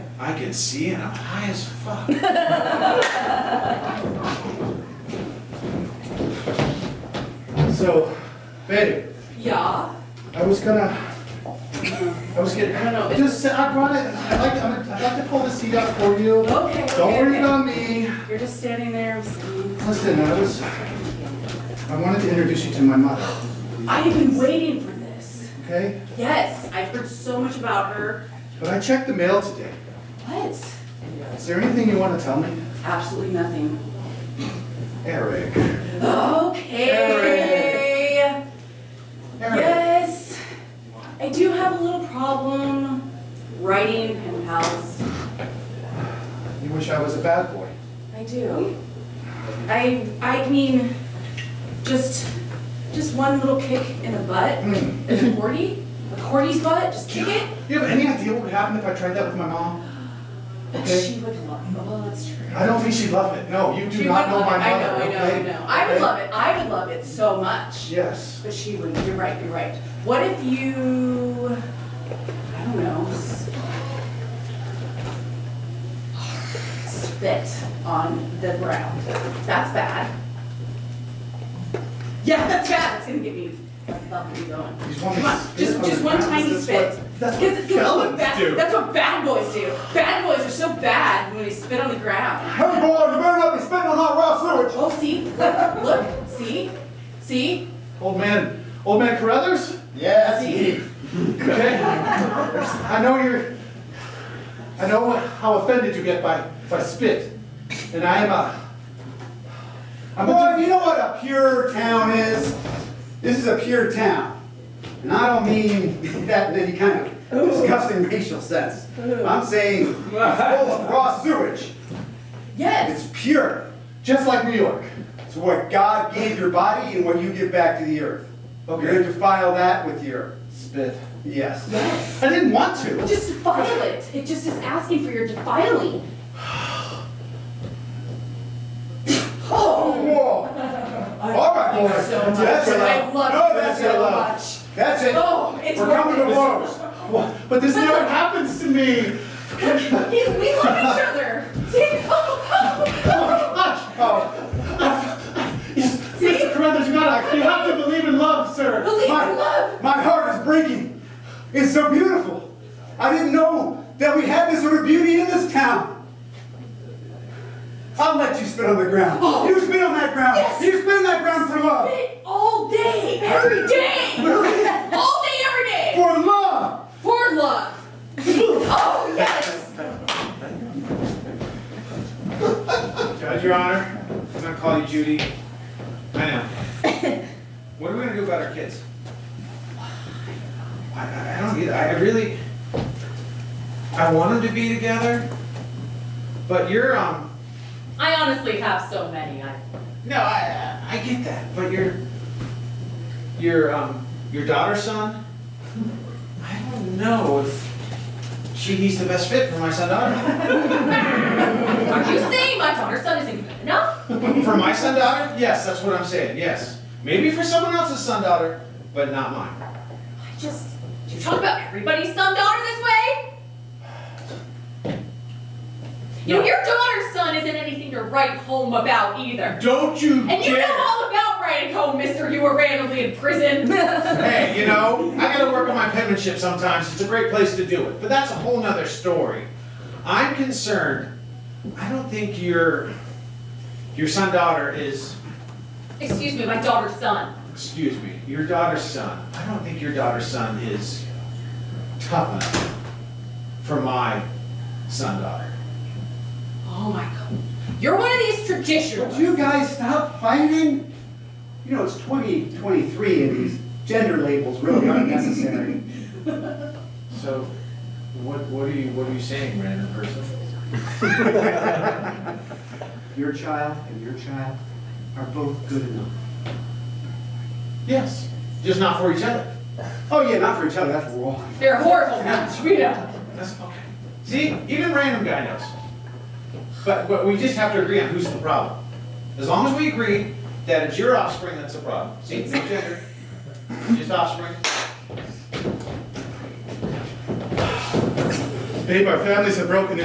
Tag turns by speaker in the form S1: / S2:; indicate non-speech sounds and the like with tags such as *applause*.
S1: I can see it, I'm high as fuck. So, babe,
S2: Yeah.
S1: I was gonna, I was getting,
S2: I don't know.
S1: just, sa- I brought it, I'd like, I'm- I'd like to pull the seat up for you.
S2: Okay.
S1: Don't
S2: okay,
S1: worry
S2: okay.
S1: about me.
S2: You're just standing there. s-
S1: Listen, I was, I wanted to introduce you to my mother,
S2: I've been waiting for this.
S1: okay?
S2: Yes, I've heard so much about her.
S1: But I checked the mail today.
S2: What?
S1: Is there anything you wanna tell me?
S2: Absolutely nothing.
S1: Eric.
S2: Okay.
S1: Eric.
S2: Yes. I do have a little problem writing pen pals.
S1: You wish I was a bad boy.
S2: I do. I I mean, just just one little kick in the butt,
S1: Hmm.
S2: a cordy, a cordy's butt. Just kick it.
S1: Do you have any idea what would happen if I tried that with my mom? Okay.
S2: She would love. Well, that's true.
S1: I don't think she'd love it. No, you do
S2: She
S1: not
S2: would
S1: know
S2: love
S1: my
S2: it. I
S1: mother.
S2: know, I know, I
S1: okay?
S2: know. I would
S1: Okay?
S2: love it. I would love it so much.
S1: Yes.
S2: But she would. You're right. You're right. What if you? I don't know. s- Spit on the ground. That's bad. *laughs* Yeah, that's bad. It's gonna get me. That's not gonna be going.
S1: Just
S2: Come on, just, just one tiny spit.
S1: That's
S2: Because-
S1: what
S2: because
S1: felons
S2: that's what bad-
S1: do.
S2: That's what bad boys do. Bad boys are so bad when they spit on the ground.
S1: Hey boy, you better not be spitting on that raw sewage.
S2: Oh, see, look, look, see, see,
S1: Old man, old man Carruthers?
S3: Yeah, that's
S2: See?
S3: me.
S1: *laughs* Okay. I know you're, I know how offended you get by, by spit. And I am a, I'm
S3: Boy,
S1: a,
S3: you know what a pure town is? This is a pure town. And I don't mean that in any kind of disgusting racial sense. I'm saying it's full of raw sewage.
S2: yes,
S3: It's pure.
S1: just like New York.
S3: It's what God gave your body and what you give back to the earth. You're
S1: Okay.
S3: gonna defile that with your,
S1: Spit.
S3: yes.
S2: yes.
S1: I didn't want to.
S2: Just defile it. It just is asking for your defiling. Oh,
S3: Whoa! All right, boy.
S2: so much.
S3: That's it.
S2: I love
S3: No,
S2: you
S3: that's it.
S2: so
S3: love.
S2: much.
S3: That's it.
S2: Oh, it's
S3: We're coming to
S2: working.
S3: blows.
S1: Wha- But this
S2: *laughs*
S1: never happens to me.
S2: we we love each other. See, oh, oh,
S3: Oh,
S1: Oh. *laughs* Yes, Mr. Carruthers, you gotta, you have to believe in love, sir.
S2: believe in
S3: My-
S2: love.
S3: My heart is breaking. It's so beautiful. I didn't know that we had this sort of beauty in this town. I'll let you spit on the ground. You spit on that ground.
S2: Yes.
S3: You spit on that ground for love.
S2: Spit All day, every day, all day, every day,
S3: For love.
S2: for love. Oh, yes.
S1: Judge, Your Honor, I'm gonna call you Judy. I know. What are we gonna do about our kids? I- I, I don't get, I I really, I want them to be together, but you're, um,
S2: I honestly have so many. I
S1: no, I, I I get that, but your, your, um, your daughter's son? I don't know if she, he's the best fit for my son, daughter. *laughs*
S2: Are you saying my daughter's son isn't good enough?
S1: For my son, daughter? Yes, that's what I'm saying, yes. Maybe for someone else's son, daughter, but not mine.
S2: I just. Do you talk about everybody's son daughter this way? You know,
S1: No.
S2: your daughter's son isn't anything to write home about either.
S1: Don't you
S2: And you
S1: dare!
S2: know all about writing home, mister. You were randomly in
S1: *laughs*
S2: prison.
S1: hey, you know, I gotta work on my penmanship sometimes. It's a great place to do it, but that's a whole nother story. I'm concerned. I don't think your your son daughter is
S2: Excuse me, my daughter's son.
S1: excuse me your daughter's son. I don't think your daughter's son is tough enough for my son daughter.
S2: Oh my god. You're one of these
S3: Would
S2: traditionalists.
S3: you guys stop fighting? You know, it's 2023 and these gender labels really aren't necessary.
S1: So, what what are you what are you saying, random
S3: *laughs*
S1: person?
S3: Your child and your child are both good enough.
S1: *laughs* Yes, just not for each other.
S3: Oh yeah, not for each other, that's wrong.
S2: They're horrible now, you know.
S1: That's okay. See, even random guy knows. But, but we just have to agree on who's the problem. As long as we agree that it's your offspring that's the problem. See, no gender, just offspring.
S4: Babe, our families have broken